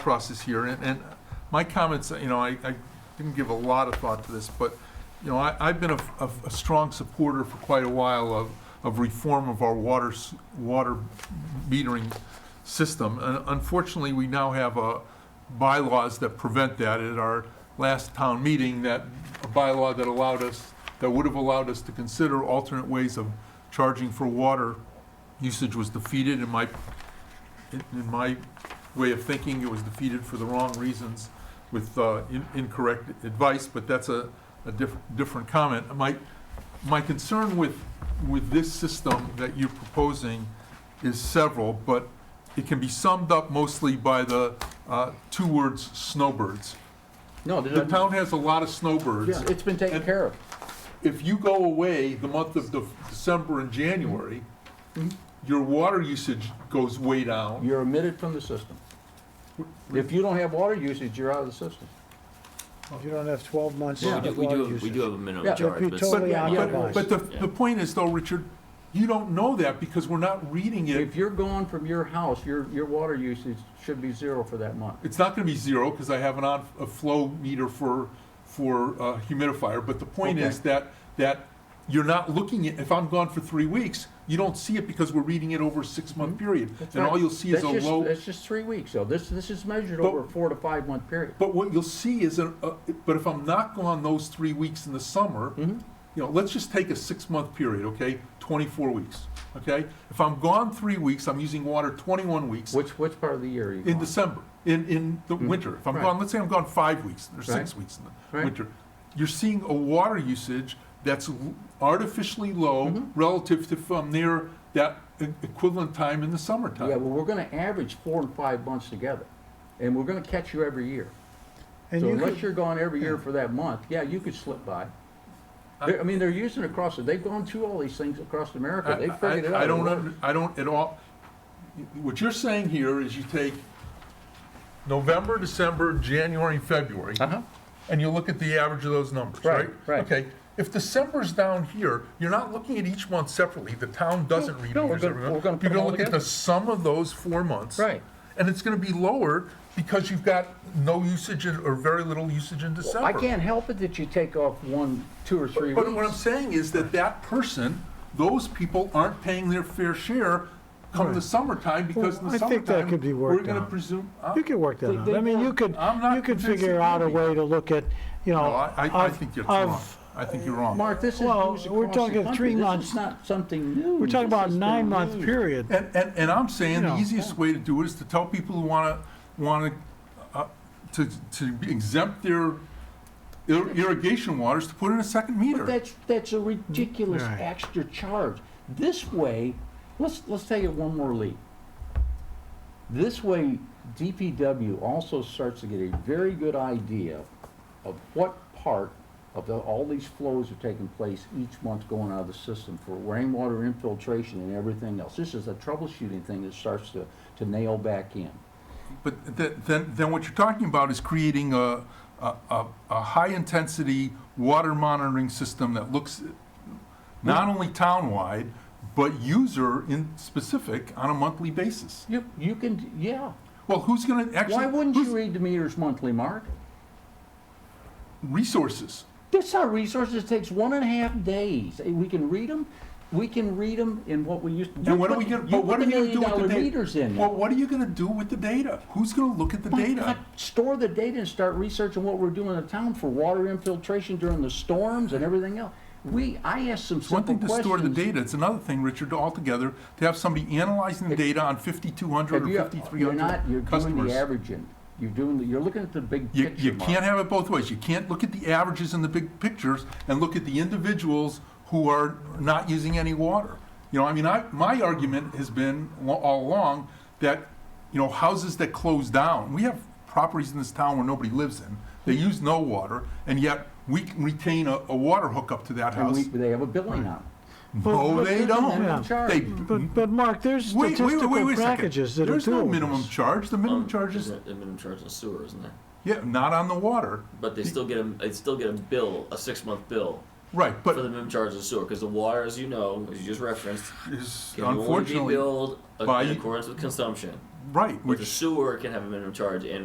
process here, and, and my comments, you know, I, I didn't give a lot of thought to this, but, you know, I, I've been a, a, a strong supporter for quite a while of, of reform of our water, s- water metering system. And Unfortunately, we now have, uh, bylaws that prevent that. At our last town meeting, that a bylaw that allowed us, that would have allowed us to consider alternate ways of charging for water usage was defeated, in my, in in my way of thinking, it was defeated for the wrong reasons with uh, in- incorrect advice, but that's a, a diff- different comment. My, my concern with, with this system that you're proposing is several, but it can be summed up mostly by the uh, two words, snowbirds. No, The there's, no- town has a lot of snowbirds. yeah, it's been taken care of. If you go away the month of De- December and January, your water usage goes way down. You're omitted from the system. If you don't have water usage, you're out of the system. If you don't have 12 months Well, we do, of we water do, we do usage. have a Yeah. minimum It'd charge, be but totally but- yeah, occupied. But the, the point is though, Richard, you don't know that because we're not reading it. If you're gone from your house, your, your water usage should be zero for that month. It's not gonna be zero, cause I have an on, a flow meter for, for uh, humidifier, but the point Okay. is that, that you're not looking at, if I'm gone for three weeks, you don't see it because we're reading it over a six-month period. And all you'll see is a Mm-hmm. That's just- low, That's just three weeks, though. This, this is measured But- over a four to five month period. but what you'll see is, a- a- but if I'm not gone those three weeks in the summer, Mhm. you know, let's just take a six-month period, okay? Twenty-four weeks, okay? If I'm gone three weeks, I'm using water twenty-one weeks. Which, which part of the year are you In gone? December, in, in the winter. If I'm Mm-hmm. Right. gone, let's say I'm gone five weeks or six weeks in the Right. winter. You're seeing a water usage that's w- artificially low Mhm. relative to from near that e- equivalent time in the Yeah, summertime. well, we're gonna average four and five months together, and we're gonna catch you every year. And So you unless could, you're gone every year for that month, yeah, you could slip by. They're- I mean, they're using it across, the- they've gone through all these things across America, they I- figured it I- out. I don't, under- I don't at all, what you're saying here is you take November, December, January, and February, Uh-huh. and you look at the average of those numbers, right? Right, right. Okay, if December's down here, you're not looking at each month separately, the town doesn't read no, we're meters gonna- every month. we're gonna put You're them gonna all look at the together. sum of those four months. Right. And it's gonna be lower because you've got no usage in- or very little usage in December. I can't help it that you take off one, two or three But what I'm weeks. saying is that that person, those people aren't paying their fair share come the summertime, because in Well, the I think that summertime, could be we're worked gonna out. presume, uh, you could work that out. I mean, you could, I'm not you could convinced figure it out can a be. way to look at, you know. no, I, I I of- think you're wrong. of- I think you're wrong. Mark, this is Well, news we're across the talking country, three this is months. not something new. We're talking This about a has been nine-month used. period. And, and, and I'm saying the Yeah. easiest way to do it is to tell people who wanna, wanna, uh, to, to exempt their ir- irrigation waters to put in a second But meter. that's, that's a ridiculous Right. extra charge. This way, let's, let's take it one more leap. This way, DPW also starts to get a very good idea of what part of the, all these flows are taking place each month going out of the system for rainwater infiltration and everything else. This is a troubleshooting thing that starts to, to nail back in. But th- then, then what you're talking about is creating a, a, a, a high-intensity water monitoring system that looks not only town-wide, but user in specific on a monthly basis. You, you can, yeah. Well, who's gonna actually? Why wouldn't you who's- read the meters monthly, Mark? Resources. That's our resources. It takes one and a half days. Eh, We can read them. We can read them in what we used to. And what are we gonna, but what are you gonna do with the dollar data? meters in. Well, what are you gonna do with the data? Who's gonna look at the Why data? not Store the data and start researching what we're doing in town for water infiltration during the storms and everything else. We, I asked some It's one simple thing to questions. store the data, it's another thing, Richard, altogether, to have somebody analyzing the data on fifty-two hundred Have or you- fifty-three You're not, you're hundred doing customers. the averaging. You're doing, the- you're looking at the big You, picture. you Mark. can't have it both ways. You can't look at the averages and the big pictures and look at the individuals who are not using any water. You know, I mean, I, my argument has been lo- all along that, you know, houses that close down, we have properties in this town where nobody lives in. They use no water, and yet we can retain a, a water hookup to that And house. we, they have a billing on No, But- they but- don't. Yeah. They, But, but Mark, there's wait, wait, wait, wait statistical a second. packages that are There's no doing minimum this. charge. The minimum Um, charge there's is, a a minimum charge in sewer, isn't there? yeah, not on the water. But they still get a, they still get a bill, a six-month bill Right, for the but minimum charge of sewer, because the water, as you know, as you just referenced, is can only be unfortunately, billed by- in accordance with consumption. right, But the which sewer can have a minimum charge and